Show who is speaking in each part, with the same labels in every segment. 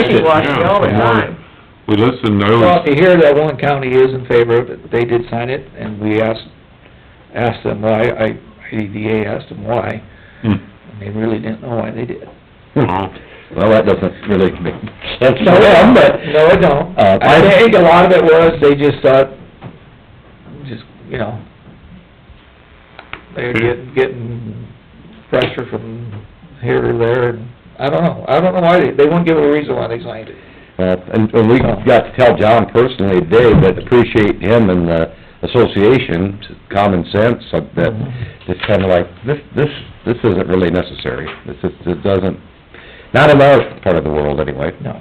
Speaker 1: money washing all the
Speaker 2: Yeah, more-
Speaker 1: time.
Speaker 2: Well, listen, I
Speaker 3: Well, if you
Speaker 2: was,
Speaker 3: hear that one county is in favor of it, they did sign it, and we asked, asked them why, I, IDVA asked them why,
Speaker 2: hmm,
Speaker 3: and they really didn't know why they did.
Speaker 2: well,
Speaker 4: Well, that doesn't really make sense to
Speaker 3: No,
Speaker 4: them, but...
Speaker 3: No, I don't.
Speaker 4: Uh,
Speaker 3: I think a lot of it was, they just thought, just, you know, they're getting, getting pressure from here or there, and I don't know. I don't know why, they, they wouldn't give a reason why they signed it.
Speaker 4: Well, uh, and, and we got to tell John personally today that appreciate him and the association, common sense, uh, that,
Speaker 3: Mm-hmm.
Speaker 4: it's kinda like, this, this, this isn't really necessary. This is, it doesn't, not in our part of the world anyway.
Speaker 3: No.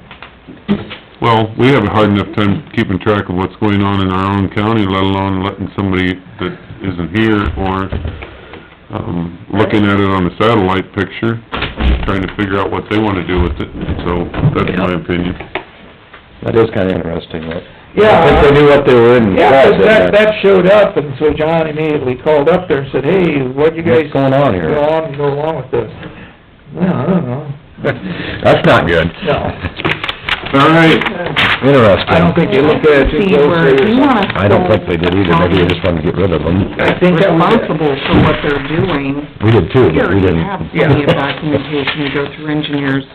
Speaker 2: well, we have a hard enough time keeping track of what's going on in our own county, let alone letting somebody that isn't here or, um, looking at it on a satellite picture, trying to figure out what they wanna do with it, so that's my opinion.
Speaker 4: That is kinda interesting, but...
Speaker 3: Yeah.
Speaker 4: I think they knew what they were in.
Speaker 3: Yeah, 'cause
Speaker 4: for,
Speaker 3: that,
Speaker 4: didn't they?
Speaker 3: that showed up, and so John immediately called up there and said, hey, what you guys
Speaker 4: What's going on
Speaker 3: go
Speaker 4: here?
Speaker 3: on, go along with this? Well, I don't know.
Speaker 4: That's not good.
Speaker 3: No.
Speaker 2: All right,
Speaker 4: Interesting.
Speaker 3: I don't think they looked at it too
Speaker 1: See, where
Speaker 3: closely or
Speaker 1: you
Speaker 3: something.
Speaker 1: wanna
Speaker 4: I don't think they did either. Maybe they just wanted to get rid of them.
Speaker 3: I think that was it.
Speaker 1: Responsible for what they're doing.
Speaker 4: We did too, but
Speaker 1: We
Speaker 4: we
Speaker 1: already
Speaker 4: didn't...
Speaker 1: have plenty of documentation, you go through engineers,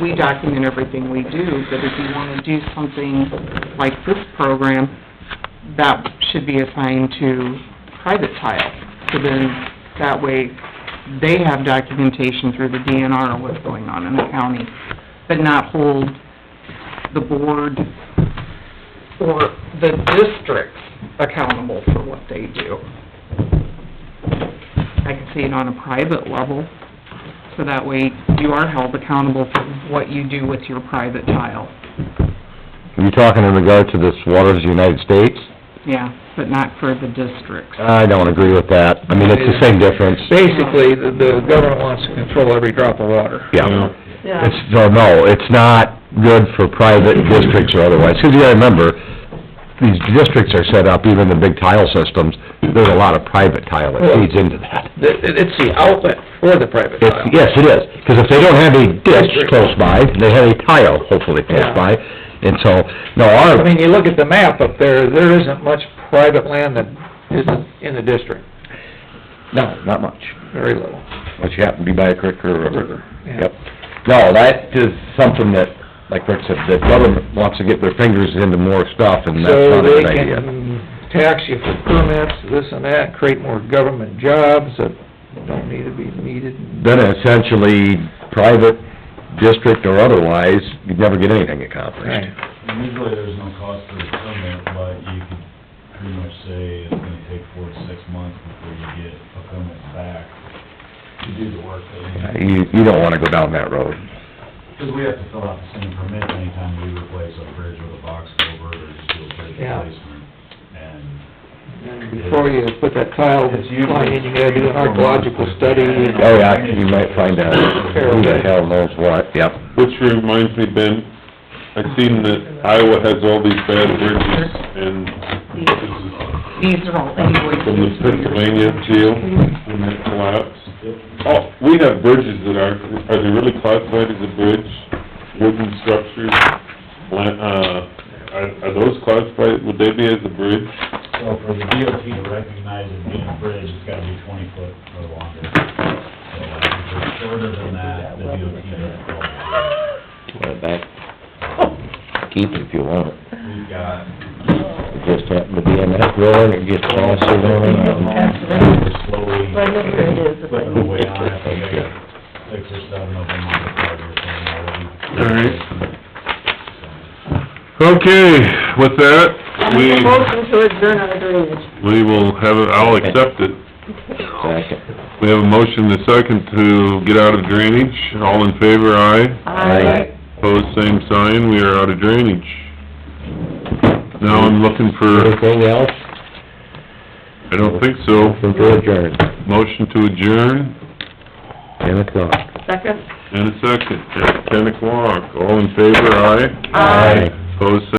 Speaker 1: we document everything we do, but if you wanna do something like this program, that should be assigned to private tile, so then, that way, they have documentation through the DNR of what's going on in the county, but not hold the board or the districts accountable for what they do. I can see it on a private level, so that way you are held accountable for what you do with your private tile.
Speaker 4: Are you talking in regard to this Waters of the United States?
Speaker 1: Yeah, but not for the districts.
Speaker 4: I don't agree with that. I mean, it's the same difference.
Speaker 3: Basically, the, the government wants to control every drop of water.
Speaker 4: Yeah. It's, so, no, it's not good for private districts or otherwise. Because you gotta remember, these districts are set up, even the big tile systems, there's a lot of private tile that feeds into that.
Speaker 3: The- It's the outlet for the private
Speaker 4: It's,
Speaker 3: tile.
Speaker 4: yes, it is, because if they don't have a ditch close by, they have a tile hopefully close
Speaker 3: Yeah.
Speaker 4: by. And so, no, our,
Speaker 3: I mean, you look at the map up there, there isn't much private land that isn't in the district,
Speaker 4: no, not much.
Speaker 3: very little.
Speaker 4: Unless you happen to be by a creek or a river.
Speaker 3: Yeah.
Speaker 4: Yep. No, that is something that, like Rick said, the government wants to get their fingers into more stuff, and that's
Speaker 3: So
Speaker 4: not a
Speaker 3: they
Speaker 4: good idea.
Speaker 3: can tax you for permits, this and that, create more government jobs that don't need to be needed.
Speaker 4: Then essentially, private, district or otherwise, you'd never get anything accomplished.
Speaker 5: And Usually there's no cost for the permit, but you could pretty much say it's gonna take four to six months before you get a permit back to do the work that you have.
Speaker 4: You, you don't wanna go down that road.
Speaker 5: Because we have to fill out the same permit anytime we replace a bridge with a box culvert or just do a bridge
Speaker 3: Yeah.
Speaker 5: replacement. And
Speaker 3: And Before you put that tile
Speaker 5: It's usually
Speaker 3: line in, you gotta do an archaeological study. and-
Speaker 4: Oh, yeah, you might find out who the hell knows what, yep.
Speaker 2: which reminds me, Ben, I seen that Iowa has all these bad bridges and this is
Speaker 1: These are all
Speaker 2: from the
Speaker 1: invoices.
Speaker 2: Pennsylvania jail when that collapsed. Oh, we have bridges that are, are they really classified as a bridge? Wooden structures, lan- uh, are, are those classified, would they be as a bridge?
Speaker 5: so for the DOT to recognize it being a bridge, it's gotta be twenty foot or longer. So like, if it's shorter than that, the DOT doesn't qualify.
Speaker 4: Put it back. Keep it if you want it.
Speaker 5: We've got
Speaker 4: It just happened to be in that road, it gets all sitting around.
Speaker 5: um, slowly
Speaker 6: Well, I know where it is, if I
Speaker 5: clipping away on it, we got six or seven of them on the project already.
Speaker 2: All right. Okay, with that, we,
Speaker 6: Make a motion to adjourn on the drainage.
Speaker 2: we will have, it. I'll accept it.
Speaker 4: Second.
Speaker 2: We have a motion and a second to get out of drainage. All in favor, aye.
Speaker 4: Aye.
Speaker 2: Pose same sign, we are out of drainage. Now I'm looking for,
Speaker 4: Anything else?
Speaker 2: I don't think so,
Speaker 4: From George Aaron,
Speaker 2: motion to adjourn
Speaker 4: ten o'clock.
Speaker 6: Second?
Speaker 2: in a second, at ten o'clock. All in favor, aye?
Speaker 6: Aye.
Speaker 2: Pose